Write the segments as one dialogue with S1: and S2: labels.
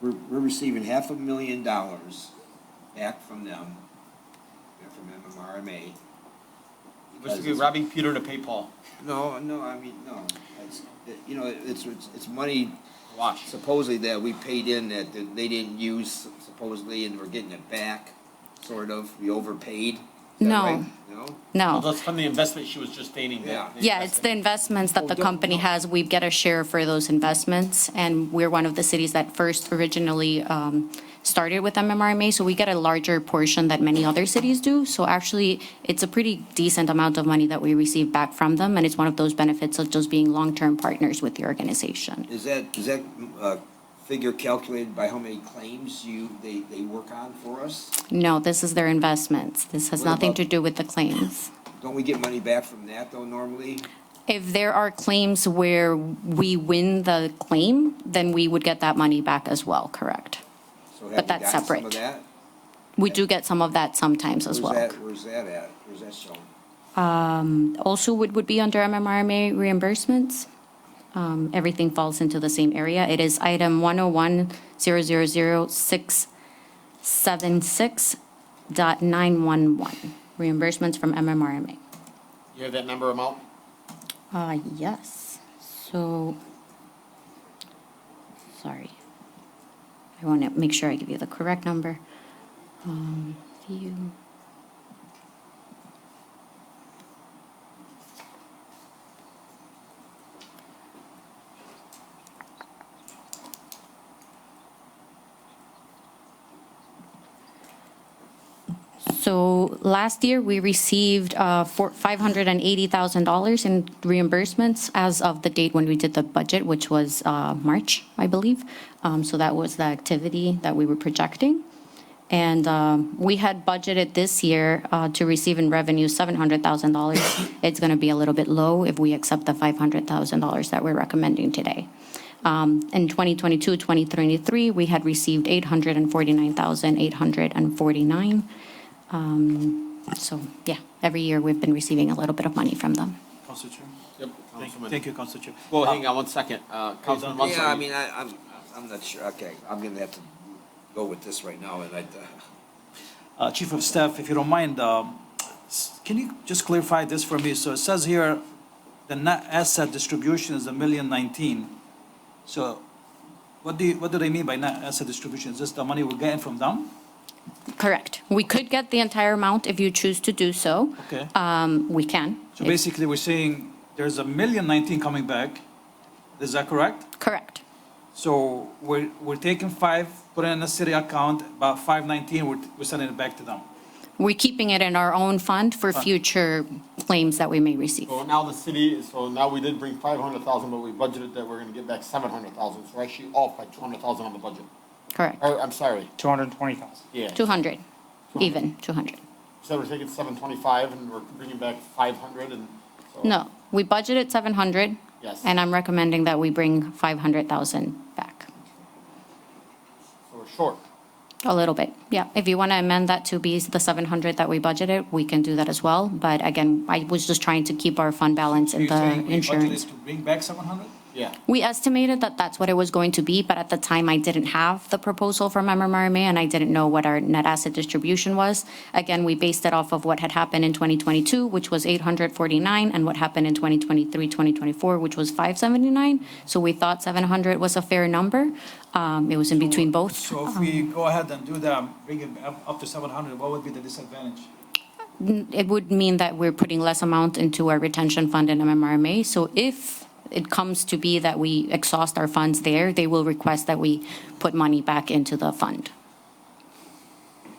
S1: we're, we're receiving half a million dollars back from them, uh, from MMRMA.
S2: Which
S1: because
S2: would be
S1: it's-
S2: robbing Peter to pay Paul.
S1: No, no, I mean, no, it's, it- you know, it's, it's, it's money
S2: Watch.
S3: Oh.
S1: supposedly that we paid in that that they didn't use supposedly, and we're getting it back, sort of, we overpaid. Is that
S3: No.
S1: right? No?
S2: Well,
S3: No.
S2: that's from the investment she was just stating
S1: Yeah.
S2: that. they
S3: Yeah, it's the
S2: invested.
S3: investments
S1: Oh,
S3: that the
S1: don't-
S3: company
S1: no.
S3: has. We get a share for those investments, and we're one of the cities that first originally um, started with MMRMA, so we get a larger portion that many other cities do. So actually, it's a pretty decent amount of money that we receive back from them, and it's one of those benefits of just being long-term partners with the organization.
S1: Is that, is that, uh, figure calculated by how many claims you, they, they work on for us?
S3: No, this is their investments. This has
S1: What
S3: nothing
S1: about-
S3: to do with the claims.
S1: Don't we get money back from that though normally?
S3: If there are claims where we win the claim, then we would get that money back as well, correct?
S1: So
S3: But that's
S1: have we gotten some of
S3: separate.
S1: that?
S3: We do get some of that sometimes as
S1: Where's
S3: well.
S1: that, where's that at? Where's that shown?
S3: Also, would, would be under MMRMA reimbursements. Um, Everything falls into the same area. It is item 101000676 dot 911, reimbursements from MMRMA.
S2: You have that number amount?
S3: Uh, yes, so, sorry. I want to make sure I give you the correct number. Um, View. So last year, we received uh, four- $580,000 in reimbursements as of the date when we did the budget, which was uh, March, I believe. Um, So that was the activity that we were projecting. And um, we had budgeted this year uh, to receive in revenue $700,000. It's going to be a little bit low if we accept the $500,000 that we're recommending today. Um, In 2022, 2023, we had received $849,849. So, yeah, every year we've been receiving a little bit of money from them.
S4: Council Chair?
S2: Yep.
S4: Thank-
S2: Councilman.
S4: Thank you, Council Chair.
S2: Well,
S4: Uh,
S2: hang on one second. Uh, Councilman
S4: done.
S2: Munson.
S1: Yeah, I mean, I, I'm, I'm not sure, okay, I'm gonna have to go with this right now and I,
S4: uh, Chief of Staff, if you don't mind, um, s- can you just clarify this for me? So it says here, the net asset distribution is a million nineteen. So what do you, what do they mean by net asset distribution? Is this the money we're getting from them?
S3: Correct. We could get the entire amount if you choose to do so.
S4: Okay.
S3: Um, we can.
S4: So basically, we're saying there's a million nineteen coming back. Is that correct?
S3: Correct.
S4: So we're, we're taking five, putting it in a city account, about five nineteen, we're, we're sending it back to them.
S3: We're keeping it in our own fund for future claims that we may receive.
S2: So now the city, so now we did bring five hundred thousand, but we budgeted that we're gonna get back seven hundred thousand. So we're actually off by two hundred thousand on the budget.
S3: Correct.
S2: Or, I'm sorry,
S5: 220,000.
S2: yeah.
S3: 200, even, 200.
S2: So we're taking seven twenty-five and we're bringing back five hundred and so.
S3: No, we budgeted 700.
S2: Yes.
S3: And I'm recommending that we bring 500,000 back,
S2: So we're short.
S3: a little bit. Yeah, if you want to amend that to be the 700 that we budgeted, we can do that as well. But again, I was just trying to keep our fund balance in
S4: You're
S3: the
S4: saying we budgeted
S3: insurance.
S4: To bring back seven hundred?
S2: Yeah.
S3: We estimated that that's what it was going to be, but at the time, I didn't have the proposal from MMRMA, and I didn't know what our net asset distribution was. Again, we based it off of what had happened in 2022, which was 849, and what happened in 2023, 2024, which was 579. So we thought 700 was a fair number. Um, It was in between both.
S4: So if we go ahead and do that, bring it up, up to seven hundred, what would be the disadvantage?
S3: it would mean that we're putting less amount into our retention fund and MMRMA. So if it comes to be that we exhaust our funds there, they will request that we put money back into the fund.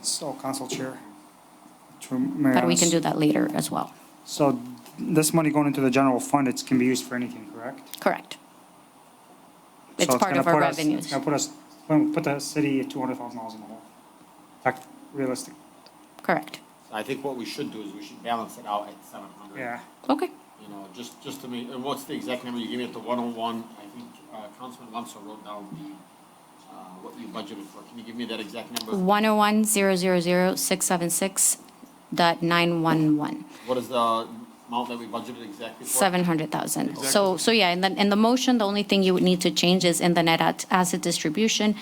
S5: So, Council Chair. to Mayor
S3: But we
S5: Anas.
S3: can do that later as well.
S5: So this money going into the general fund, it can be used for anything, correct?
S3: Correct.
S5: So
S3: It's part
S5: gonna
S3: of our
S5: put us- It's
S3: revenues.
S5: going to put us, put put the city at $200,000 in the hole. Like, realistic,
S3: Correct.
S2: So I think what we should do is we should balance it out at seven hundred.
S5: yeah.
S3: Okay.
S2: You know, just, just to make, and what's the exact number you gave me at the one oh one? I think, uh, Councilman Lumsdahl wrote down the, uh, what you budgeted for. Can you give me that exact number?
S3: 101000676 dot 911.
S2: What is the amount that we budgeted exactly for?
S3: 700,000. So, so yeah, and then, in the motion, the only thing you would need to change is in the net at- asset distribution,